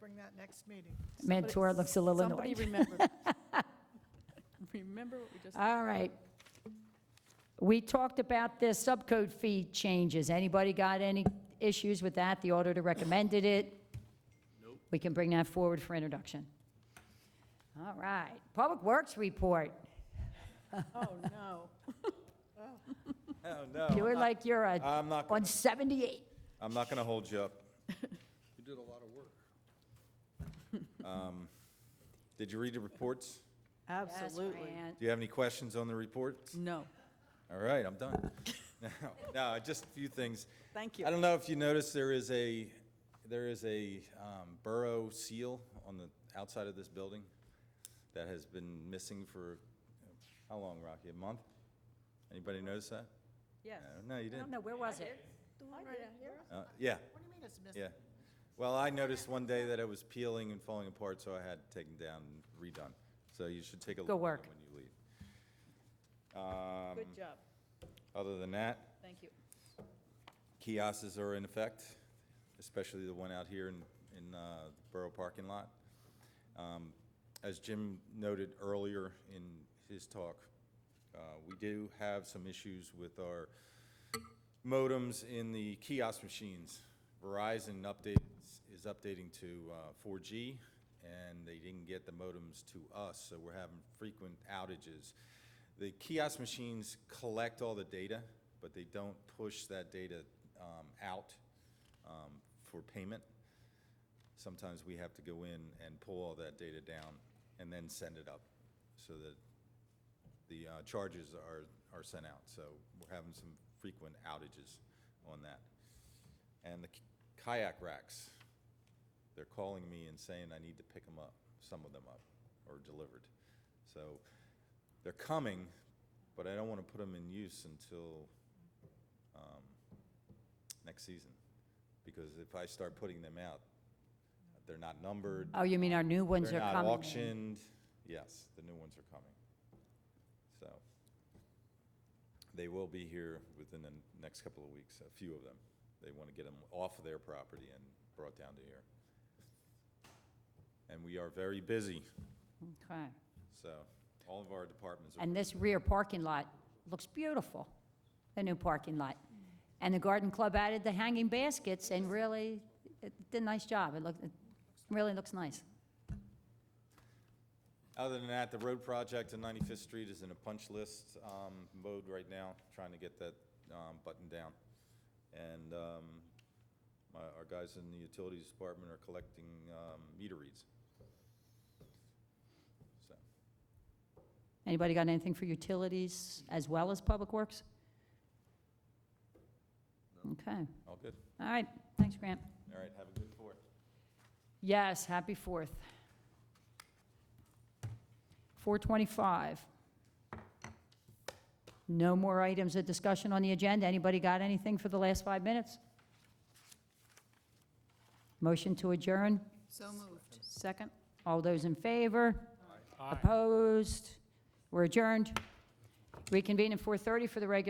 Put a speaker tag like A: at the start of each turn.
A: bring that next meeting.
B: Mentor looks a little
C: Somebody
B: annoyed.
C: remember. Remember what we just,
B: All right. We talked about the subcode fee changes. Anybody got any issues with that? The auditor recommended it. Nope. We can bring that forward for introduction. All right. Public Works report.
C: oh, no.
D: Oh, uh, no.
B: You were
D: I'm not-
B: like you're a-
D: I'm not,
B: on
D: gonna-
B: 78.
D: I'm not going to hold you up.
E: You did a lot of work.
D: Um, Did you read the reports?
C: Absolutely.
B: Yes, Fran.
D: Do you have any questions on the reports?
C: No,
D: All right, I'm done. No, No, just a few things.
C: thank you.
D: I don't know if you noticed, there is a, there is a um, borough seal on the outside of this building that has been missing for, how long, Rocky? A month? Anybody notice that?
C: Yes.
D: No, No, you
B: I don't
D: didn't?
B: know, where was it?
D: Uh, Yeah,
A: What do you mean it's missing?
D: yeah. Well, I noticed one day that it was peeling and falling apart, so I had it taken down and redone. So you should take a look at it when
B: work.
D: you leave. Um,
C: Good job.
D: Other than that,
C: Thank you.
D: kiosks are in effect, especially the one out here in, in uh, the Borough parking lot. Um, As Jim noted earlier in his talk, uh, we do have some issues with our modems in the kiosk machines. Verizon updates, is updating to uh, 4G, and they didn't get the modems to us, so we're having frequent outages. The kiosk machines collect all the data, but they don't push that data um, out um, for payment. Sometimes we have to go in and pull all that data down and then send it up, so that the uh, charges are, are sent out, so we're having some frequent outages on that. And the kayak racks, they're calling me and saying I need to pick them up, some of them up, or delivered. So they're coming, but I don't want to put them in use until um, next season, because if I start putting them out, they're not numbered,
B: Oh, you mean our new ones are
D: they're
B: coming?
D: not auctioned. Yes, the new ones are coming. So they will be here within the next couple of weeks, a few of them. They want to get them off of their property and brought down to here. And we are very busy,
B: Okay.
D: so all of our departments are,
B: And this rear parking lot looks beautiful, the new parking lot. And the garden club added the hanging baskets and really it did a nice job. It looked, it really looks nice.
D: other than that, the road project on 95th Street is in a punch list um, mode right now, trying to get that um, buttoned down. And um, my- our guys in the utilities department are collecting um, meter reads. So,
B: Anybody got anything for utilities as well as public works? Okay,
D: all good.
B: all right, thanks, Grant.
D: All right, have a good fourth.
B: Yes, happy Fourth. 425. No more items of discussion on the agenda. Anybody got anything for the last five minutes? Motion to adjourn?
F: So moved.
C: Second?
B: All those in favor? Opposed? We're adjourned. Reconvene at 4:30 for the regular